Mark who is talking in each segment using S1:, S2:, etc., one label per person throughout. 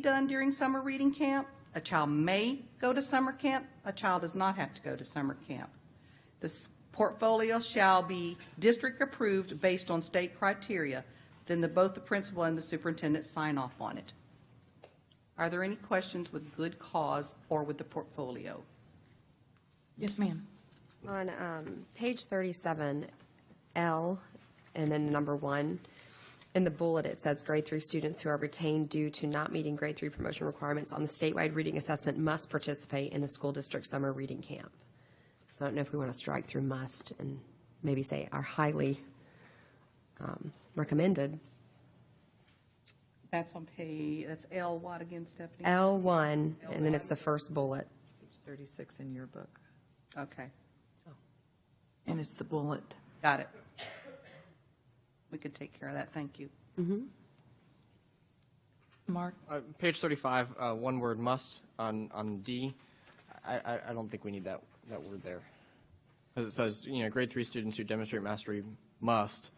S1: done during summer reading camp. A child may go to summer camp. A child does not have to go to summer camp. This portfolio shall be district-approved based on state criteria. Then the, both the principal and the superintendent sign off on it. Are there any questions with good cause or with the portfolio?
S2: Yes, ma'am.
S3: On um, page 37, L, and then number one, in the bullet, it says grade three students who are retained due to not meeting grade three promotion requirements on the statewide reading assessment must participate in the school district summer reading camp. So I don't know if we want to strike through must and maybe say are highly um, recommended.
S1: That's on pay, that's L what again, Stephanie?
S3: L1, and then it's the first bullet.
S4: Page 36 in your book,
S1: Okay,
S2: And it's the bullet.
S1: got it. We could take care of that, thank you.
S2: Mark?
S5: Uh, Page 35, uh, one word, must, on, on D. I, I, I don't think we need that, that word there. Because it says, you know, grade three students who demonstrate mastery must,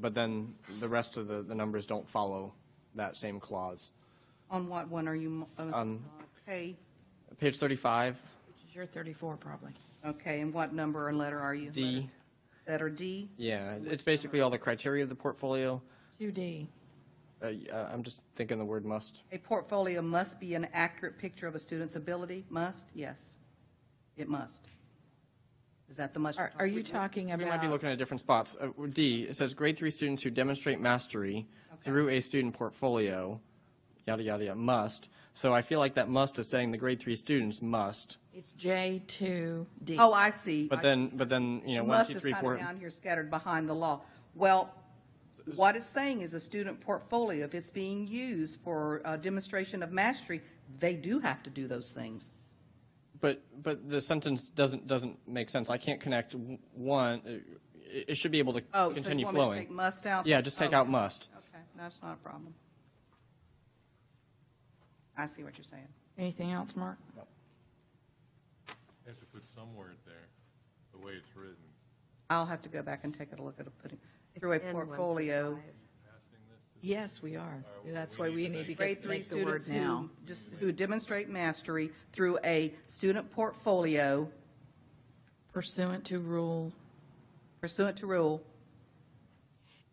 S5: but then the rest of the, the numbers don't follow that same clause.
S1: On what one are you, on pay?
S5: Page 35,
S2: You're 34, probably.
S1: Okay, and what number and letter are you?
S5: D,
S1: Letter D?
S5: yeah, it's basically all the criteria of the portfolio.
S2: 2D.
S5: Uh, y- uh, I'm just thinking the word must.
S1: A portfolio must be an accurate picture of a student's ability, must? Yes, it must. Is that the must?
S2: Are are you talking
S5: We might be
S2: about,
S5: looking at different spots. Uh, D, it says grade three students who demonstrate mastery through a student portfolio, yada, yada, yada, must. So I feel like that must is saying the grade three students must,
S2: it's J2D?
S1: Oh, I see.
S5: but then, but then, you know, one,
S1: Must
S5: two,
S1: is
S5: three,
S1: kind of
S5: four.
S1: down here scattered behind the law. Well, what it's saying is a student portfolio, if it's being used for uh, demonstration of mastery, they do have to do those things.
S5: But, but the sentence doesn't, doesn't make sense. I can't connect w- one, uh, it, it should be able to
S1: Oh, so you
S5: continue
S1: want me to take
S5: flowing.
S1: must out?
S5: Yeah, just take out
S1: Okay.
S5: must.
S1: Okay, that's not a problem. I see what you're saying.
S2: Anything else, Mark?
S6: You Have to put some word there, the way it's written.
S1: I'll have to go back and take a look at it, putting, through a
S3: N1 through
S1: portfolio.
S3: five.
S2: Yes, Uh, we are. That's why we need to
S1: Grade
S2: get,
S1: three
S2: make the word
S1: students
S2: now.
S1: who, just who demonstrate mastery through a student portfolio
S2: Pursuant to rule,
S1: pursuant to rule.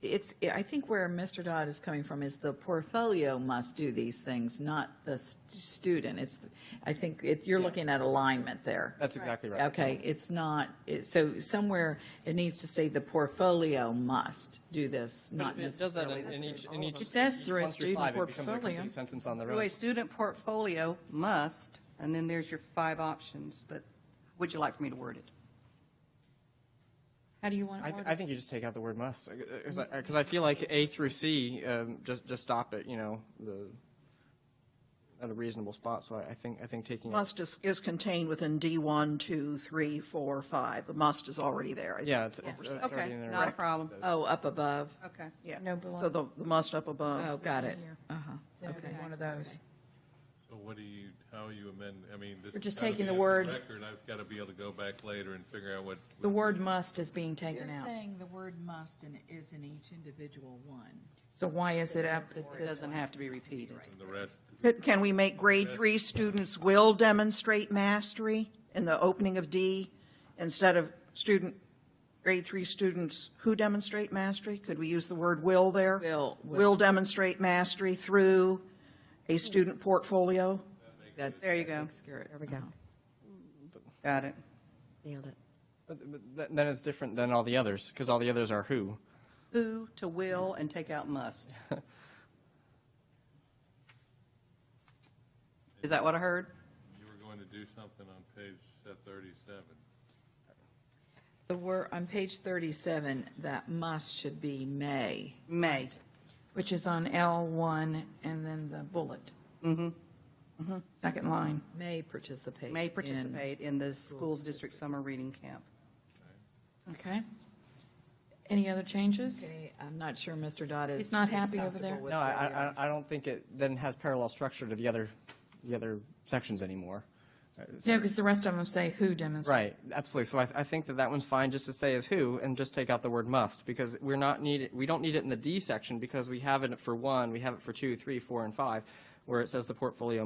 S7: It's, I think where Mr. Dodd is coming from is the portfolio must do these things, not the st- student. It's, I think it, you're looking at alignment there.
S5: That's exactly right.
S7: Okay, it's not, it- so somewhere it needs to say the portfolio must do this,
S5: But
S7: not
S5: It does that
S7: necessarily.
S5: in in each,
S1: Oh,
S5: in each.
S2: It says
S5: each
S2: through a
S5: one
S2: student
S5: five, it becomes a
S2: portfolio.
S5: complete Sentence on their
S1: Through
S5: own.
S1: a student portfolio must, and then there's your five options, but would you like for me to word it?
S2: How do you want
S5: I,
S2: it
S5: th-
S2: worded?
S5: I think you just take out the word must, because uh, I feel like A through C, um, just, just stop it, you know, the, at a reasonable spot, so I, I think, I think taking. out-
S8: Must is, is contained within D one, two, three, four, five. The must is already there. I think.
S5: Yeah, it's, it's it's already
S1: Okay,
S5: in there.
S1: not a problem.
S7: Oh, up above.
S1: Okay.
S8: Yeah.
S2: No below.
S8: So the, the must up
S7: Oh,
S8: above.
S7: got it. Uh-huh,
S2: Okay,
S7: okay.
S2: one of those.
S6: So what do you, how you amend, I mean, this.
S2: We're just
S6: has gotta
S2: taking
S6: be
S2: the
S6: in
S2: word-
S6: Record, I've got to be able to go back later and figure out what.
S2: The word must is being taken out.
S7: the word must and it is in each individual one.
S2: So why is it up at
S4: It
S2: this
S4: doesn't have to be repeated.
S6: And the rest,
S8: But Can we make grade three students will demonstrate mastery in the opening of D instead of student, grade three students who demonstrate mastery? Could we use the word will there?
S7: Will, will.
S8: Will demonstrate mastery through a student portfolio?
S7: That-
S1: There you
S7: that
S1: go.
S7: takes care of it.
S3: There we go.
S1: Got it.
S3: Nailed it.
S5: But- but th- Then it's different than all the others, because all the others are who.
S1: Who to will and take out must. Is that what I heard?
S6: you were going to do something on page thirty-seven.
S7: The word, on page 37, that must should be may.
S1: May.
S2: Which is on L1 and then the bullet. Mm-hmm. Second line.
S7: May participate.
S1: May
S7: in-
S1: participate in the school's district summer reading camp.
S2: Okay. Any other changes?
S7: Okay, I'm not sure Mr. Dodd is.
S2: He's not happy over
S7: comfortable
S2: there?
S7: with
S5: No,
S7: where we
S5: I,
S7: are.
S5: I, I don't think it then has parallel structure to the other, the other sections anymore.
S2: No, because the rest of them say who demonstrates.
S5: Right, absolutely. So I, I think that that one's fine just to say is who and just take out the word must because we're not needed, we don't need it in the D section because we have it for one, we have it for two, three, four, and five. where it says the portfolio